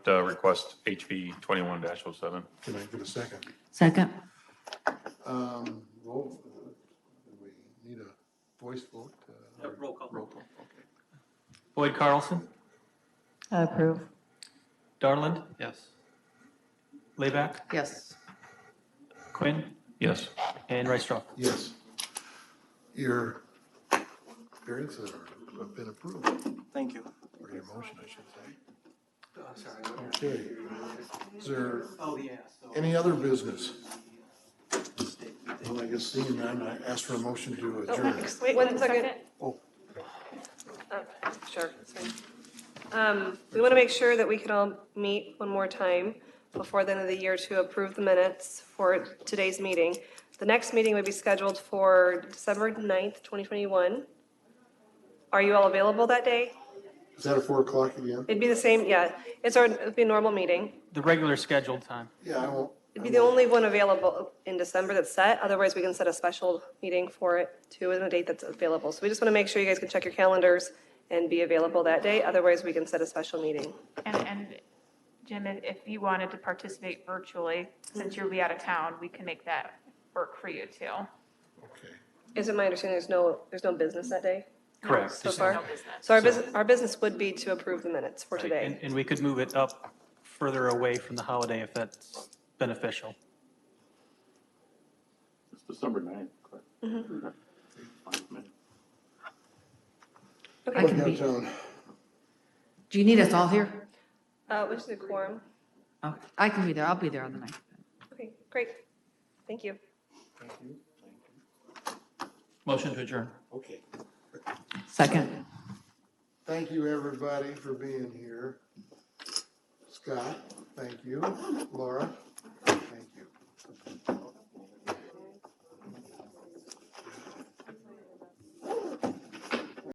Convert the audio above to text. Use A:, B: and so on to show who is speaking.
A: uh, request HB twenty-one oh 7
B: Can I get a second?
C: Second.
B: Um, roll, uh, do we need a voice vote? uh,
D: Yeah,
B: or-
D: roll call.
B: Roll call, okay.
D: Boyd Carlson,
C: Approve.
D: Darland? Yes. Layback,
C: Yes.
D: Quinn,
A: Yes.
D: and Rice-Straw.
B: Yes. Your variance have been approved,
D: Thank you.
B: or your motion, I should say. Okay. Is there
D: Oh, yeah, so.
B: any other business? Well, I guess seeing none, I ask for a motion to adjourn.
E: Oh, Wait one second.
B: Oh.
E: Oh, Sure. it's fine. Um, We want to make sure that we can all meet one more time before the end of the year to approve the minutes for today's meeting. The next meeting would be scheduled for December 9th, 2021. Are you all available that day?
B: Is that at four o'clock again?
E: It'd be the same, yeah. It's our, it'd be a normal meeting.
D: The regular scheduled time.
B: Yeah, I won't.
E: It'd be the only one available in December that's set, otherwise we can set a special meeting for it too, and a date that's available. So we just want to make sure you guys can check your calendars and be available that day, otherwise we can set a special meeting.
F: And, and Jim, if if you wanted to participate virtually, since you'll be out of town, we can make that work for you too.
B: Okay.
E: Is it my understanding there's no, there's no business that day
D: Correct.
E: so
D: Just-
E: far?
F: No business.
E: So our business, our business would be to approve the minutes for
D: And,
E: today.
D: and we could move it up further away from the holiday if that's beneficial.
G: It's December ninth, correct? Fine.
C: I
E: Okay,
C: can be,
B: Downtown.
C: do you need us all here?
E: uh, which is a quorum.
C: Oh, I can be there. I'll be there on the ninth.
E: Okay, great. Thank you.
D: Motion to adjourn.
B: Okay.
C: Second.
B: Thank you, everybody, for being here. Scott, thank you. Laura,